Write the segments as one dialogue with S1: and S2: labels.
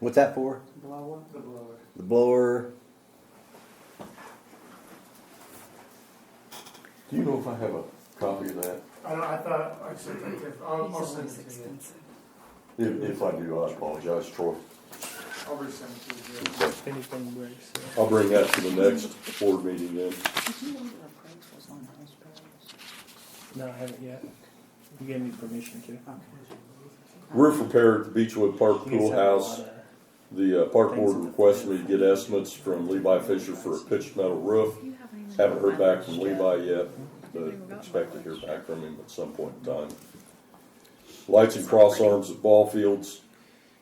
S1: What's that for?
S2: Blower? The blower.
S1: The blower.
S3: Do you know if I have a copy of that?
S2: I don't, I thought, I should think if, I'll, I'll send it to you.
S3: If, if I do, I apologize, Troy.
S2: I'll resend it to you. Jerry.
S3: Okay.
S4: If anything breaks. uh,
S3: I'll bring that to the next board meeting then.
S4: No, I haven't yet. You gave me permission to.
S3: Roof repair at the Beechwood Park
S4: You guys
S3: Pool
S4: have a
S3: House.
S4: lot of-
S3: The uh, park board requested me to get estimates from Levi Fisher for a pitched metal roof. Haven't heard back from Levi yet, but expect to hear back from him at some point in time. Lights and crossarms at ball fields.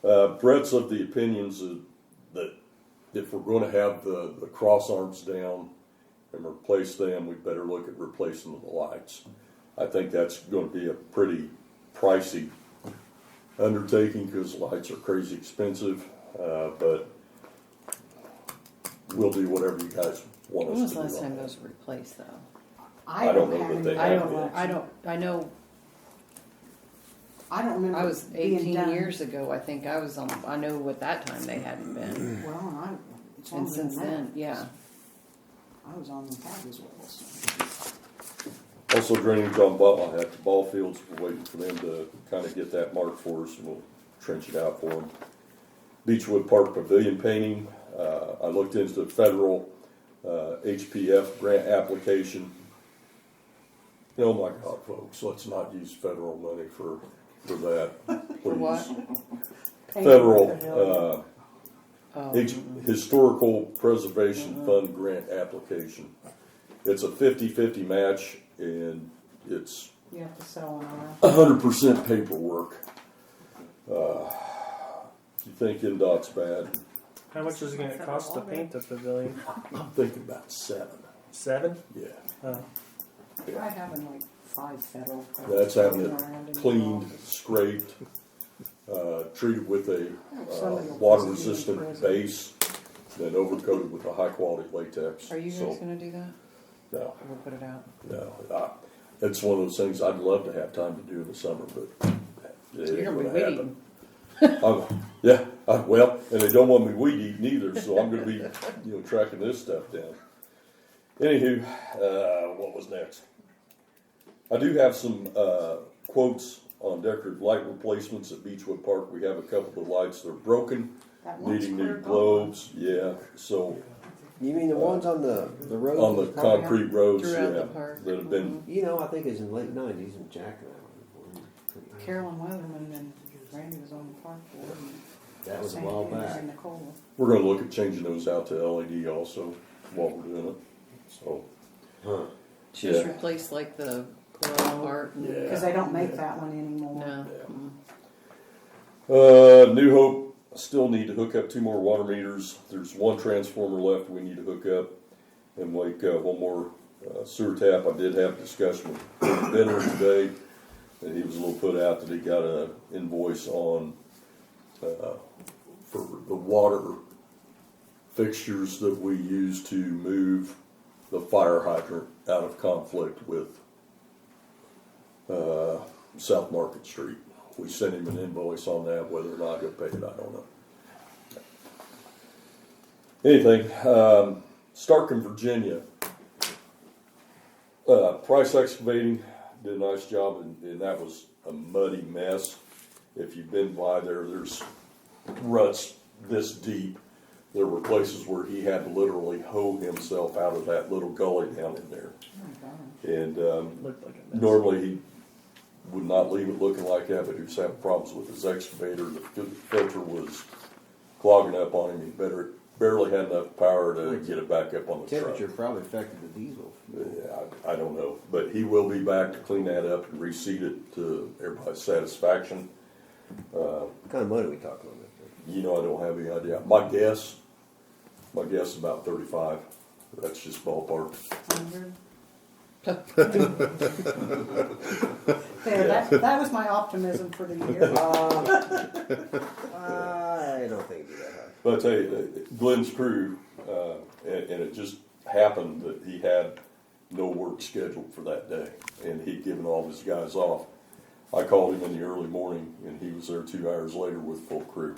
S3: Uh, Brett's of the opinions that- that if we're going to have the, the crossarms down and replace them, we better look at replacing the lights. I think that's going to be a pretty pricey undertaking because lights are crazy expensive, uh, but we'll do whatever you guys want us
S5: When was
S3: to
S5: the
S3: do.
S5: last
S3: on
S5: time
S3: that.
S5: those were replaced, though?
S6: I
S3: don't
S6: don't
S3: know that
S6: have,
S3: they
S6: any-
S5: I
S3: have
S5: don't,
S3: yet.
S5: I don't, I know,
S6: I don't remember.
S5: I was
S6: it being
S5: eighteen
S6: done.
S5: years ago, I think I was on, I know what that time they hadn't been.
S6: Well, and I, it's
S5: And
S6: longer than
S5: since then,
S6: that.
S5: yeah.
S6: I was on the tag as well, so.
S3: Also drainage on Butler at the ball fields, we're waiting for them to kind of get that marked for us and we'll trench it out for them. Beechwood Park Pavilion painting, uh, I looked into the federal, uh, HPF grant application. Oh my God, folks, let's not use federal money for, for that,
S5: For what?
S3: please. Federal, uh,
S5: Oh,
S3: H- Historical Preservation Fund Grant Application. It's a 50-50 match and it's
S6: You have to sell one around.
S3: hundred percent paperwork. Uh, You think NDOT's bad?
S4: How much is it gonna cost to paint the pavilion?
S3: I'm thinking about seven.
S4: Seven?
S3: Yeah,
S4: Oh,
S6: I have in like five federal.
S3: that's having
S6: around in the
S3: it
S6: office.
S3: cleaned, scraped, uh, treated with a
S6: Some of your
S3: water-resistant
S6: prisoners.
S3: base, then overcoated with a high-quality latex.
S5: are you guys
S3: So,
S5: gonna do that?
S3: No,
S5: We'll put it out.
S3: no, I, it's one of those things I'd love to have time to do in the summer, but it
S5: You're
S3: ain't
S5: gonna be
S3: gonna happen.
S5: waiting.
S3: Oh, yeah, uh, well, and they don't want me weed eating either, so I'm gonna be, you know, tracking this stuff down. Anywho, uh, what was next? I do have some, uh, quotes on decorative light replacements at Beechwood Park. We have a couple of lights that are broken,
S6: That one's
S3: needing new
S6: clear gone.
S3: globes, yeah, so,
S7: You mean the ones on the the road?
S3: on the concrete roads,
S5: Throughout the
S3: yeah,
S5: park.
S3: that have been,
S7: You know, I think it's in the late nineties and Jack and I. were-
S6: Carolyn Weatherman and Randy was on the park board. and
S7: That was a
S6: Sandy
S7: while
S6: Andrews
S7: back.
S6: And Nicole.
S3: we're gonna look at changing those out to LED also while we're doing it, so.
S7: Huh.
S5: Just
S3: Yeah.
S5: replace like the coral part and,
S6: Cause they don't make that one anymore.
S5: no.
S3: Uh, New Hope, still need to hook up two more water meters. There's one transformer left we need to hook up. And like, uh, one more uh, sewer tap, I did have a discussion with Benner today. And he was a little put out that he got an invoice on, uh, for the water fixtures that we use to move the fire hydrant out of conflict with, uh, South Market Street. We sent him an invoice on that, whether or not he'll pay it, I don't know. Anything, um, Starkin, Virginia. Uh, Price Excavating did a nice job and, and that was a muddy mess. If you've been by there, there's ruts this deep. There were places where he had to literally hoe himself out of that little gully down in there.
S6: Oh my God.
S3: And, um,
S4: looked like a mess.
S3: Normally, he would not leave it looking like that, but he was having problems with his excavator. The fil- filter was clogging up on him. He better, barely had enough power to get it back up on the truck.
S7: Temperature probably affected the diesel.
S3: Yeah, I, I don't know, but he will be back to clean that up and reseed it to everybody's satisfaction.
S7: What kind of money we talking on that?
S3: You know, I don't have any idea. My guess, my guess is about thirty-five. That's just ballpark.
S6: Hundred? There, that, that was my optimism for the year.
S7: I don't think it'd be that high.
S3: But I tell you, uh, Glenn's crew, uh, and, and it just happened that he had no work scheduled for that day, and he'd given all of his guys off. I called him in the early morning, and he was there two hours later with full crew.